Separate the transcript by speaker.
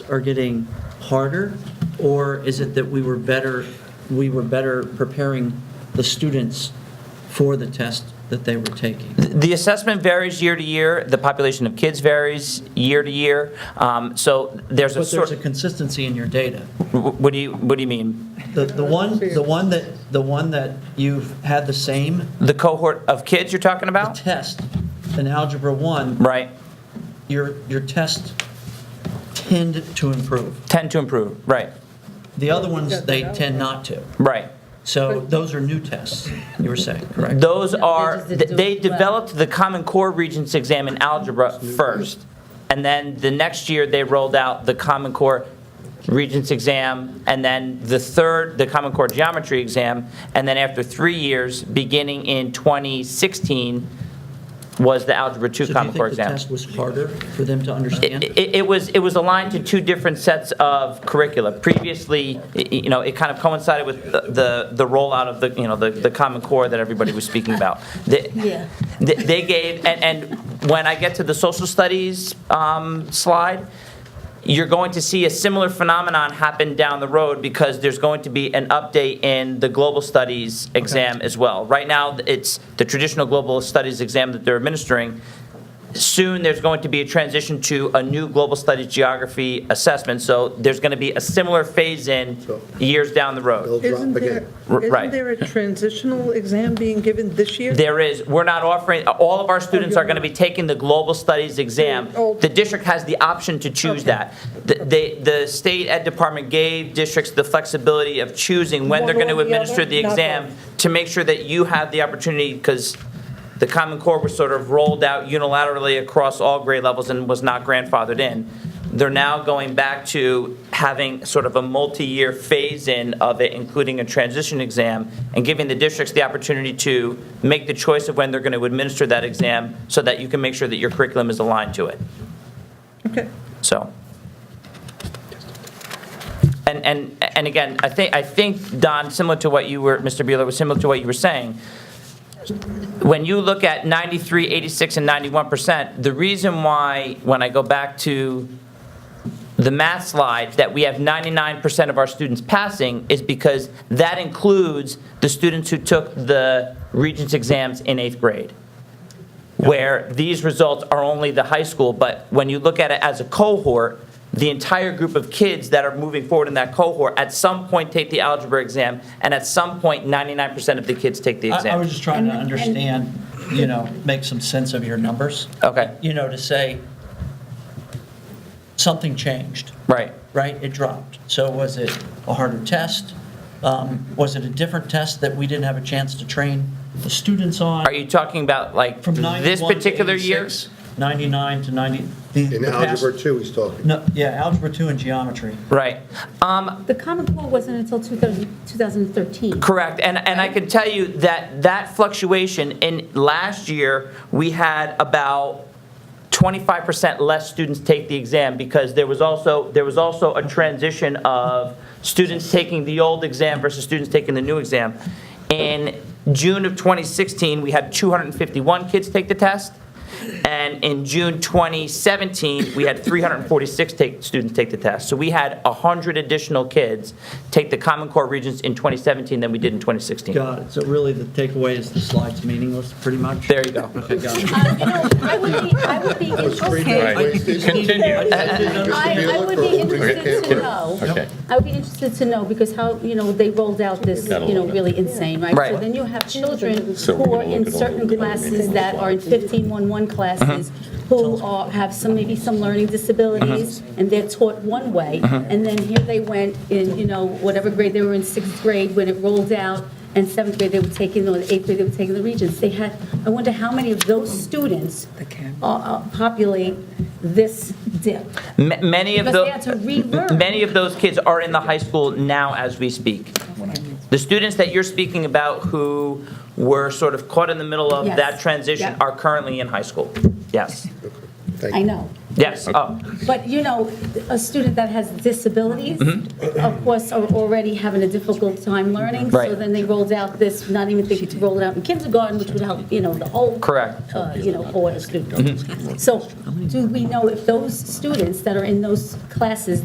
Speaker 1: are getting harder? Or is it that we were better, we were better preparing the students for the test that they were taking?
Speaker 2: The assessment varies year to year, the population of kids varies year to year, Um, so there's a
Speaker 1: But there's
Speaker 2: sort,
Speaker 1: a consistency in your data.
Speaker 2: what do you, what do you mean?
Speaker 1: The, the one, the one that, the one that you've had the same
Speaker 2: The cohort of kids you're talking about?
Speaker 1: test in Algebra 1,
Speaker 2: Right,
Speaker 1: your, your test tend to improve.
Speaker 2: tend to improve, right,
Speaker 1: The other ones, they tend not to.
Speaker 2: right.
Speaker 1: So those are new tests, you were saying, correct?
Speaker 2: Those are,
Speaker 3: just did do
Speaker 2: they
Speaker 3: it well.
Speaker 2: developed the Common Core Regents exam in algebra first, and then the next year, they rolled out the Common Core Regents exam, and then the third, the Common Core Geometry exam, and then after three years, beginning in 2016, was the Algebra 2
Speaker 1: So do you
Speaker 2: Common Core
Speaker 1: think the
Speaker 2: exam.
Speaker 1: test was harder for them to
Speaker 2: It,
Speaker 1: understand?
Speaker 2: it- it was, it was aligned to two different sets of curricula. Previously, y- y- you know, it kind of coincided with the- the, the rollout of the, you know, the, the Common Core that everybody was speaking about. The-
Speaker 3: Yeah.
Speaker 2: They- They gave, and, and when I get to the social studies um, slide, you're going to see a similar phenomenon happen down the road because there's going to be an update in the global studies exam as well. Right now, it's the traditional global studies exam that they're administering. Soon, there's going to be a transition to a new global studies geography assessment, so there's going to be a similar phase-in years down the road.
Speaker 4: They'll
Speaker 5: Isn't
Speaker 4: drop
Speaker 5: there,
Speaker 4: again.
Speaker 2: R- right.
Speaker 5: isn't there a transitional exam being given this year?
Speaker 2: There is, we're not offering, all of our students are going to be taking the global studies exam.
Speaker 5: Oh.
Speaker 2: The district has the option to choose that. The, they- the state ed department gave districts the flexibility of choosing when they're
Speaker 5: One
Speaker 2: going
Speaker 5: or
Speaker 2: to
Speaker 5: the other,
Speaker 2: administer the
Speaker 5: not
Speaker 2: exam to make sure that you have the opportunity, because the Common Core was sort of rolled out unilaterally across all grade levels and was not grandfathered in. They're now going back to having sort of a multi-year phase-in of it, including a transition exam, and giving the districts the opportunity to make the choice of when they're going to administer that exam so that you can make sure that your curriculum is aligned to it.
Speaker 5: Okay.
Speaker 2: So. And, and, and again, I think, I think, Don, similar to what you were, Mr. Bueller, was similar to what you were saying, when you look at 93, 86, and 91%, the reason why, when I go back to the math slide, that we have 99% of our students passing is because that includes the students who took the Regents exams in eighth grade where these results are only the high school, but when you look at it as a cohort, the entire group of kids that are moving forward in that cohort at some point take the algebra exam, and at some point, 99% of the kids take the
Speaker 1: I, I was
Speaker 2: exam.
Speaker 1: just trying to understand, you know, make some sense of your numbers.
Speaker 2: Okay.
Speaker 1: You know, to say, something changed,
Speaker 2: Right.
Speaker 1: right? It dropped. So was it a harder test? Um, Was it a different test that we didn't have a chance to train the students on?
Speaker 2: Are you talking about like
Speaker 1: From
Speaker 2: this
Speaker 1: 91 to
Speaker 2: particular year?
Speaker 1: 86, 99 to 90. the-
Speaker 4: In
Speaker 1: the past-
Speaker 4: algebra two, he's talking.
Speaker 1: No, yeah, algebra 2 and geometry.
Speaker 2: Right. Um,
Speaker 3: The Common Core wasn't until 2000 2013.
Speaker 2: Correct, and, and I can tell you that that fluctuation, in last year, we had about 25% less students take the exam, because there was also, there was also a transition of students taking the old exam versus students taking the new exam. In June of 2016, we had 251 kids take the test, and in June 2017, we had 346 take, students take the test. So we had 100 additional kids take the Common Core Regents in 2017 than we did in 2016.
Speaker 1: Got it. So really, the takeaway is the slide's meaningless, pretty much?
Speaker 2: There you go.
Speaker 1: Okay, got it.
Speaker 3: Uh, You know, I would be, I would be
Speaker 4: Right.
Speaker 3: interested, I I would be interested to know.
Speaker 6: Okay.
Speaker 3: I would be interested to know, because how, you know, they rolled out this,
Speaker 6: Gotta
Speaker 3: you know,
Speaker 6: look at it.
Speaker 3: really insane, right?
Speaker 2: Right.
Speaker 3: So then you have children
Speaker 6: So we're
Speaker 3: who are
Speaker 6: gonna
Speaker 3: in
Speaker 6: look at all
Speaker 3: certain
Speaker 6: the-
Speaker 3: classes that are in 15-1-1 classes, who are, have some, maybe some learning disabilities,
Speaker 6: Mm-hmm.
Speaker 3: and they're taught one way, and then here they went in, you know, whatever grade they were in, sixth grade, when it rolled out, and seventh grade they were taking, or eighth grade they were taking the Regents. They had, I wonder how many of those students uh, uh, populate this dip?
Speaker 2: Ma- Many of
Speaker 3: Because
Speaker 2: the.
Speaker 3: they had to relearn.
Speaker 2: Many of those kids are in the high school now as we speak. The students that you're speaking about who were sort of caught in the middle of
Speaker 3: Yes.
Speaker 2: that transition
Speaker 3: Yeah.
Speaker 2: are currently in high school. Yes,
Speaker 3: I know.
Speaker 2: yes, oh,
Speaker 3: But, you know, a student that has disabilities, of course, are already having a difficult time learning. So
Speaker 2: Mm-hmm. Right.
Speaker 3: then they rolled out this, not even thinking to roll it out in kindergarten, which would help, you know, the whole.
Speaker 2: Correct. Mm-hmm.
Speaker 3: uh, You know, order student. So do we know if those students that are in those classes